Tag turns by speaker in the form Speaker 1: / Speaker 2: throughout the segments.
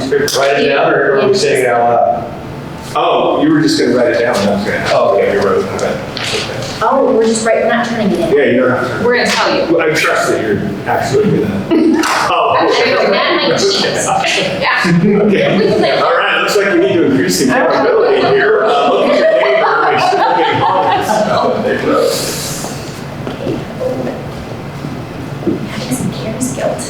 Speaker 1: Write it down or are we saying it out loud?
Speaker 2: Oh, you were just gonna write it down, that's gonna.
Speaker 1: Oh, okay.
Speaker 2: You wrote it, okay.
Speaker 3: Oh, we're just right, we're not turning it in.
Speaker 2: Yeah, you're not,
Speaker 4: We're gonna tell you.
Speaker 2: well, I trust that you're actually gonna. Oh,
Speaker 4: I'm
Speaker 2: okay.
Speaker 4: doing that, my cheeks. Yeah. We can
Speaker 2: Okay,
Speaker 4: play-
Speaker 2: all right, looks like we need to increase the accountability here. Uh, Look at your neighbor, make sure they're getting comments. Uh, they wrote.
Speaker 3: Having some Karen's guilt.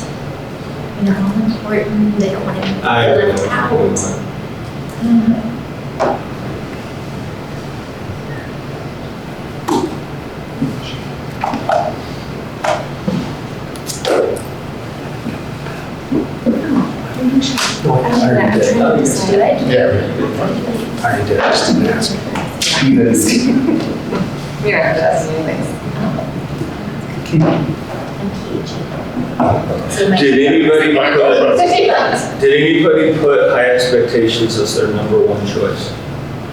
Speaker 3: You know, all important, they don't want to be
Speaker 2: I
Speaker 3: left out. Mhm. Oh, I'm sure. I don't know, I'm trying to decide.
Speaker 1: Yeah. I already did, I just didn't ask.
Speaker 4: We don't have to ask you anything.
Speaker 3: I'm cagey. So my-
Speaker 2: Did anybody, put-
Speaker 4: Yes.
Speaker 2: did anybody put high expectations as their number one choice?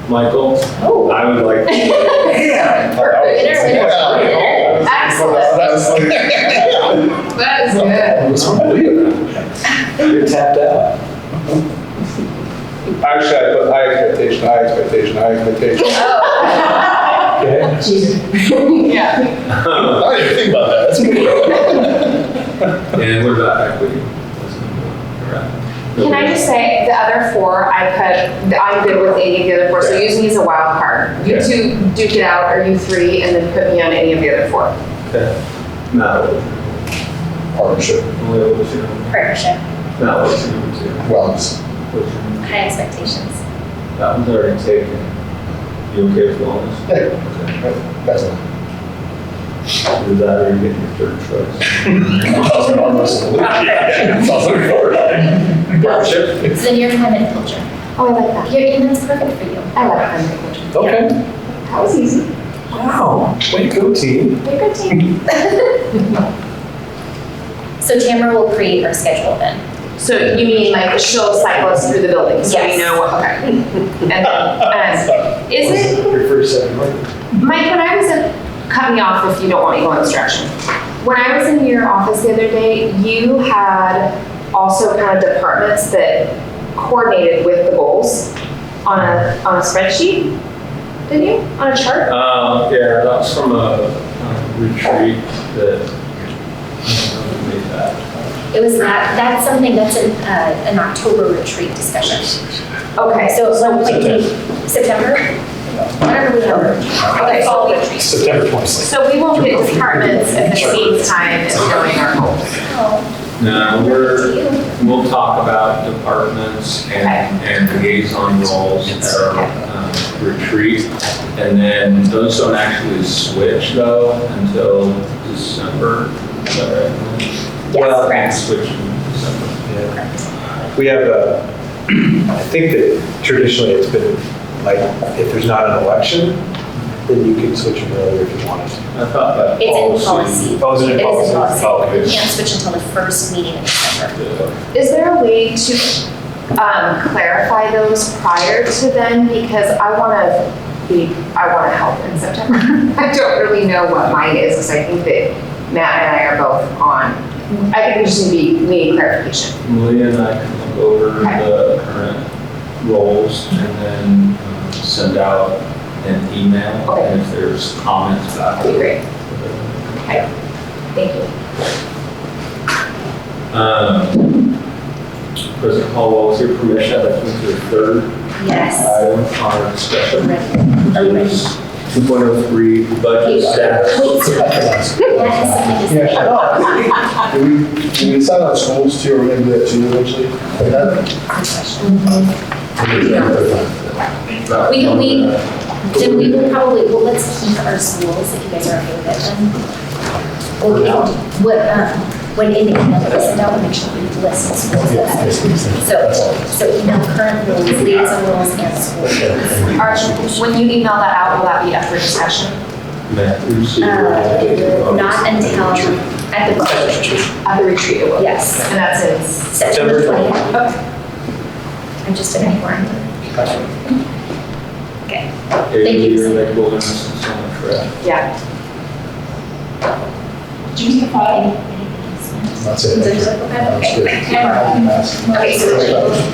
Speaker 2: Michael,
Speaker 3: Oh.
Speaker 2: I would like to
Speaker 1: Yeah.
Speaker 4: Winner, winner, winner. Excellent. That is good.
Speaker 1: It was unbelievable. You're tapped out.
Speaker 5: Actually, I put high expectation, high expectation, high expectation.
Speaker 1: Okay.
Speaker 4: Yeah.
Speaker 6: Oh. I didn't even think about that. That's good.
Speaker 2: And what about equity? That's number one, correct?
Speaker 4: Can I just say, the other four, I put, I'm good with any of the other four, so use me as a wild card. You
Speaker 2: Okay.
Speaker 4: two duke it out, or you three, and then put me on any of the other four.
Speaker 2: Okay. Not what,
Speaker 6: Partnership.
Speaker 2: only what was your number,
Speaker 3: Partnership,
Speaker 2: not what's your number two?
Speaker 6: Wellness.
Speaker 2: What's your number?
Speaker 3: high expectations.
Speaker 2: That one's already taken. You okay with wellness?
Speaker 6: Yeah.
Speaker 2: Okay.
Speaker 6: That's it.
Speaker 2: Is that where you're getting your third choice?
Speaker 6: Thousand dollars. Thousand
Speaker 2: Partnership?
Speaker 3: It's in your climate culture.
Speaker 4: Oh, I like that.
Speaker 3: Your email's perfect for you.
Speaker 4: I like that. language.
Speaker 1: Okay.
Speaker 4: That was easy.
Speaker 1: Wow. Way to go, team.
Speaker 3: You're good team. So Tamara will create her schedule then.
Speaker 4: So you mean like she'll cycle us through the building, so we
Speaker 3: Yes.
Speaker 4: know what, okay. And then, um, is it,
Speaker 1: Your first seven months.
Speaker 4: Mike, when I was in, cut me off if you don't want me going this direction. When I was in your office the other day, you had also kind of departments that coordinated with the goals on a, on a spreadsheet, didn't you? On a chart?
Speaker 2: Um, yeah, that was from a um, retreat that, I don't know who made that.
Speaker 3: It was not, that's something, that's an, uh, an October retreat discussion.
Speaker 4: Okay, so
Speaker 3: So it's like, September? Whatever we have.
Speaker 4: Okay.
Speaker 3: It's all retreat.
Speaker 1: September twenty-sixth.
Speaker 4: so we won't get departments at the same time as knowing our goals.
Speaker 3: Oh,
Speaker 2: No, we're,
Speaker 3: you.
Speaker 2: we'll talk about departments and, and liaison roles at our um, retreat. And then those don't actually switch though until December. Is that right?
Speaker 3: Yes, correct.
Speaker 2: Switch in December.
Speaker 1: We have, uh, I think that traditionally it's been like, if there's not an election, then you can switch them earlier if you wanted to.
Speaker 2: I thought that
Speaker 3: It's in
Speaker 2: policy.
Speaker 3: policy.
Speaker 1: Oh, is
Speaker 3: It
Speaker 1: it
Speaker 3: is
Speaker 1: a
Speaker 3: in
Speaker 1: policy? Oh,
Speaker 3: policy.
Speaker 1: okay.
Speaker 3: You can't switch until the first meeting in December.
Speaker 4: Is there a way to um, clarify those prior to then? Because I want to be, I want to help in September. I don't really know what mine is, because I think that Matt and I are both on. I think we just need to be, we need clarification.
Speaker 2: Malia and I can look over the current roles and then um, send out an email.
Speaker 4: Okay.
Speaker 2: And if there's comments about
Speaker 4: That'd be
Speaker 2: it.
Speaker 4: great. Okay, thank you.
Speaker 2: Um, President Caldwell, with your permission, I'd like to move to the third
Speaker 3: Yes.
Speaker 2: item on our discussion.
Speaker 3: Are you ready?
Speaker 2: 2.03 budget status.
Speaker 3: Wait, yes, it is.
Speaker 6: Do we, do we decide on schools too, or we're gonna do that too eventually? Like that?
Speaker 3: We can- we- Then we will probably, well, let's keep our schools, if you guys are okay with it, then. Or we all, what, um, when in the email that we send out, we make sure we list the schools
Speaker 6: Yeah,
Speaker 3: that.
Speaker 6: that's what we said.
Speaker 3: So,
Speaker 6: That's all.
Speaker 3: so email current rules, liaison rules, and schools.
Speaker 4: Are- When you email that out, will that be up for discussion?
Speaker 2: Matt, you see your-
Speaker 3: Uh, Not until at the retreat,
Speaker 4: At the retreat, it will.
Speaker 3: yes,
Speaker 4: And that's in,
Speaker 3: September
Speaker 1: September
Speaker 3: 20th.
Speaker 4: okay,
Speaker 3: I'm just an anchor. Okay.
Speaker 2: Hey,
Speaker 3: you.
Speaker 2: you're like wilderness and so much, right?
Speaker 4: yeah.
Speaker 7: Do you need a file?
Speaker 3: Any- anything else?
Speaker 6: That's it.
Speaker 3: Is it okay?
Speaker 6: That's good.
Speaker 7: Camera.
Speaker 3: Okay, so.